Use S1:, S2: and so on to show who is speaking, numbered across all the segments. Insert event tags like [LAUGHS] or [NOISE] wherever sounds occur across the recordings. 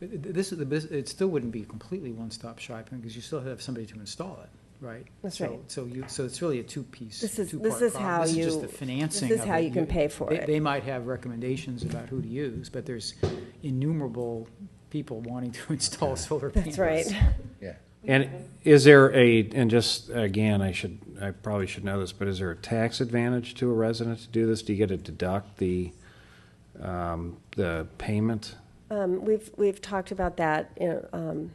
S1: This is the, bus- it still wouldn't be completely one-stop shopping, because you still have somebody to install it, right?
S2: That's
S1: So-
S2: right.
S1: So you, so it's really a two-piece,
S2: This is-
S1: two-part problem.
S2: this is how
S1: This is just
S2: you-
S1: the financing
S2: this is
S1: of
S2: how
S1: it.
S2: you can pay for
S1: they-
S2: it.
S1: They might have recommendations about who to use, but there's innumerable people wanting to [LAUGHS] install solar panels.
S2: That's right.
S3: Yeah.
S4: And is there a, and just, again, I should, I probably should know this, but is there a tax advantage to a resident to do this? Do you get to deduct the, um, the payment?
S2: Um, We've, we've talked about that. you know, um,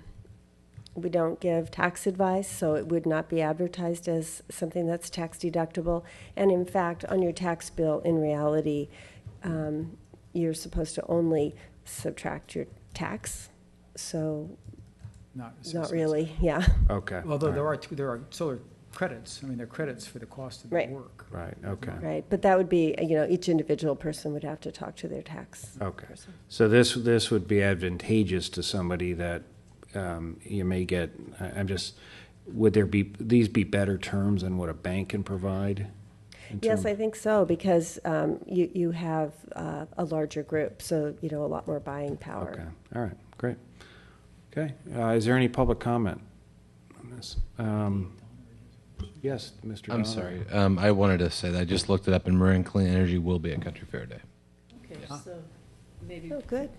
S2: We don't give tax advice, so it would not be advertised as something that's tax deductible. And in fact, on your tax bill, in reality, um, you're supposed to only subtract your tax. So,
S1: Not
S2: not
S1: assessments.
S2: really, yeah.
S4: Okay.
S1: Although there are, two- there are solar credits, I mean, there are credits for the cost of the
S2: Right.
S1: work.
S4: Right, okay,
S2: Right, but that would be, you know, each individual person would have to talk to their tax.
S4: okay. So this, this would be advantageous to somebody that, um, you may get, I, I'm just, would there be, these be better terms than what a bank can provide? in
S2: Yes,
S4: term-
S2: I think so, because um, you, you have uh, a larger group, so, you know, a lot more buying
S4: Okay,
S2: power.
S4: all right, great. Okay, uh, is there any public comment on this? Um, Yes, Mr. Donner?
S3: I'm sorry. Um, I wanted to say that I just looked it up, and Marin Clean Energy will be at Country Fair Day.
S5: Okay, so maybe,
S2: Oh, good.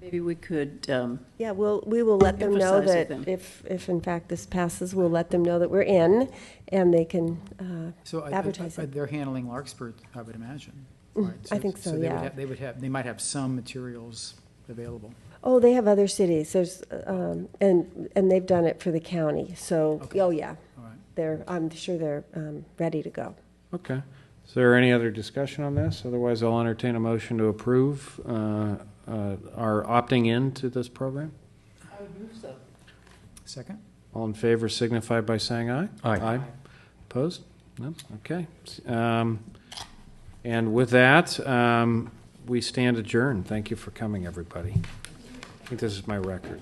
S5: maybe we could, um,
S2: Yeah, we'll, we will let them know that
S5: Emphasize with them.
S2: if, if in fact this passes, we'll let them know that we're in, and they can, uh,
S1: So I- I-
S2: Advertise
S1: I-
S2: it. Mm,
S1: they're handling Larkspur, I would imagine. right?
S2: I think so,
S1: they would
S2: yeah.
S1: have- They would have, they might have some materials available.
S2: oh, they have other cities, there's, um, and, and they've done it for the county, so,
S1: Okay.
S2: oh, yeah.
S1: All right.
S2: They're, I'm sure they're um, ready to go.
S4: Okay. Is there any other discussion on this? Otherwise, I'll entertain a motion to approve uh, uh, our opting in to this program.
S5: I would move so.
S1: Second?
S4: All in favor signify by saying aye.
S3: Aye.
S4: Opposed? No? Okay. Um, And with that, um, we stand adjourned. Thank you for coming, everybody. I think this is my record.